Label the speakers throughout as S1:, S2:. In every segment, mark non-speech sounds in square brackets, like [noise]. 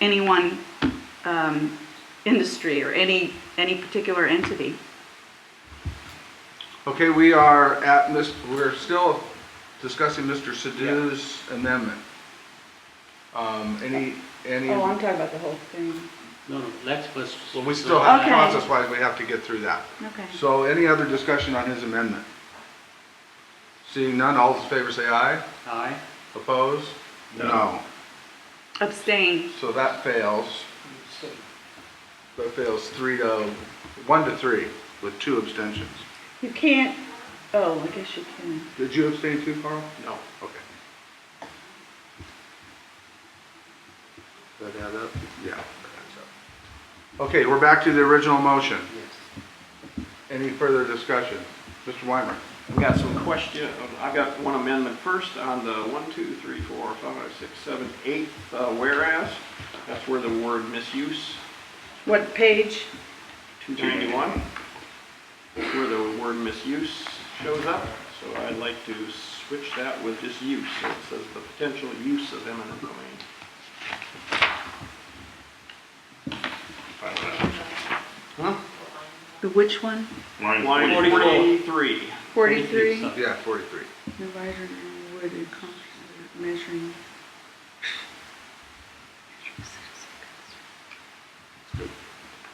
S1: any one um, industry or any, any particular entity.
S2: Okay, we are at, Miss. we're still discussing Mr. Sadoo's amendment. Um, Any, any,
S1: Oh, I'm talking about the whole thing.
S3: No, no, let's first.
S2: well, we still have,
S1: Okay.
S2: process-wise, we have to get through that.
S1: Okay.
S2: So any other discussion on his amendment? Seeing none, all those in favor say aye.
S3: Aye.
S2: Opposed? No.
S1: Abstain.
S2: So that fails. That fails three to, one to three, with two abstentions.
S1: You can't, oh, I guess you can.
S2: Did you abstain too, Carl?
S3: No.
S2: Okay. Does uh, that add up? Yeah. that adds up. Okay, we're back to the original motion.
S4: Yes.
S2: Any further discussion? Mr. Weimer?
S4: We got some question, I've got one amendment first on the one, two, three, four, five, six, seven, eighth, uh, whereas. That's where the word misuse,
S1: What page?
S4: 291. That's where the word misuse shows up. So I'd like to switch that with just use. So It says the potential use of eminent domain.
S1: The which one?
S4: Line 43.
S1: 43?
S3: Sorry.
S2: Yeah, 43.
S1: The writer now would encompass measuring.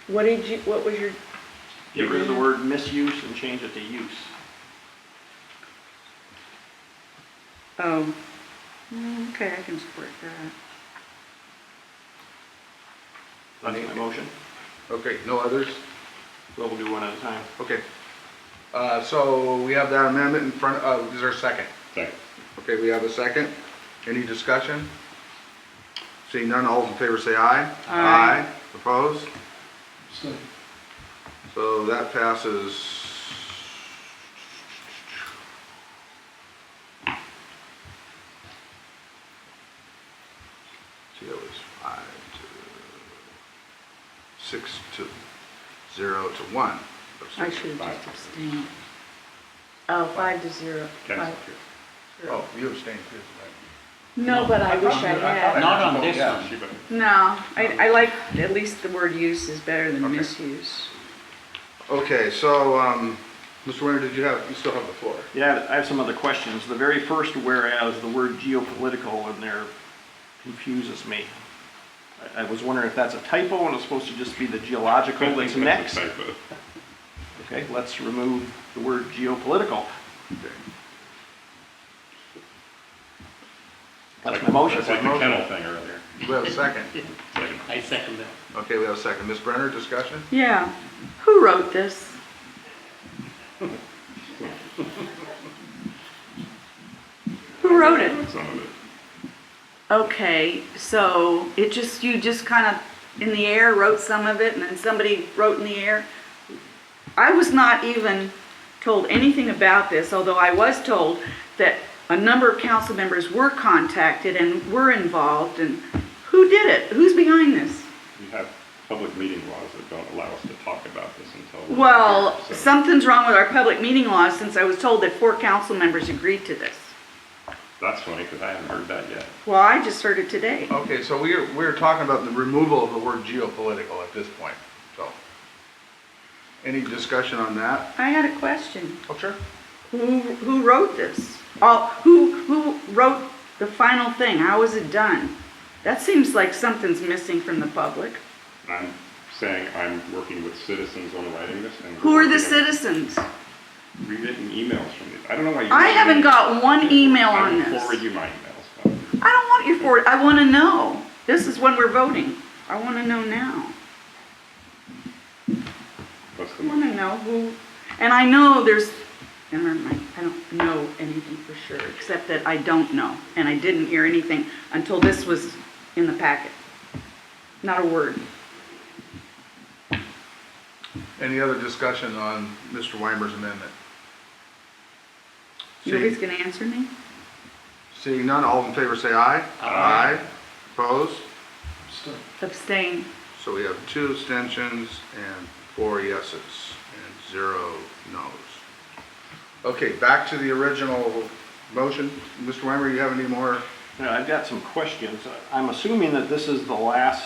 S1: What did you, what was your,
S4: Get rid of the word misuse and change it to use.
S1: oh, Mm, okay, I can support that.
S4: That's my motion.
S2: Okay, no others?
S4: We'll do one at a time.
S2: Okay. Uh, So we have that amendment in front of, is there a second?
S5: Second.
S2: Okay, we have a second. Any discussion? Seeing none, all in favor say aye.
S1: Aye.
S2: Opposed? So that passes. See, that was five to, six to, zero to one.
S1: I should have just abstained. Oh, five to zero.
S5: Cancel.
S1: Five.
S2: Oh, you abstained too,
S1: No, but I wish I had.
S3: Not on this one.
S5: She voted.
S1: No, I, I like, at least the word use is better than
S2: Okay.
S1: misuse.
S2: right? Okay, so, um, Mr. Winter, did you have, you still have the floor?
S4: Yeah, I have some other questions. The very first whereas, the word geopolitical in there confuses me. I I was wondering if that's a typo and it's supposed to just be the geological that's next.
S5: Typo.
S4: Okay, let's remove the word geopolitical. That's my motion.
S5: That's like the kennel thing earlier.
S2: We have a second.
S5: Second.
S3: I second that.
S2: Okay, we have a second. Ms. Brenner, discussion?
S1: Yeah, who wrote [laughs] this? Who wrote it?
S5: Some of it.
S1: Okay, so it just, you just kind of in the air wrote some of it and then somebody wrote in the air? I was not even told anything about this, although I was told that a number of council members were contacted and were involved and who did it? Who's behind this?
S5: We have public meeting laws that don't allow us to talk about this until. we're
S1: Well,
S5: here, so-
S1: something's wrong with our public meeting law since I was told that four council members agreed to this.
S5: That's funny, because I haven't heard that yet.
S1: Well, I just heard it today.
S2: Okay, so we're, we're talking about the removal of the word geopolitical at this point, so. Any discussion on that?
S1: I had a question.
S2: Oh, sure.
S1: Who, who wrote this? Oh, who, who wrote the final thing? How was it done? That seems like something's missing from the public.
S5: I'm saying I'm working with citizens on writing this and.
S1: Who are the
S5: citizens?
S1: citizens?
S5: We're getting emails from these. I don't know why you.
S1: I haven't got one email
S5: I
S1: on
S5: will
S1: this.
S5: Forward you my emails.
S1: I don't want your forward, I want to know. This is when we're voting. I want to know now.
S5: What's the
S1: I want to know who, and I know there's, and never mind, I don't know anything for sure, except that I don't know, and I didn't hear anything until this was in the packet. Not a word.
S2: Any other discussion on Mr. Weimer's amendment?
S1: Nobody's
S2: Seeing,
S1: gonna answer me?
S2: seeing none, all in favor say aye.
S3: Aye.
S2: Opposed?
S1: Abstain.
S2: So we have two abstentions and four yeses and zero noes. Okay, back to the original motion. Mr. Weimer, you have any more
S4: Now, I've got some questions. I'm assuming that this is the last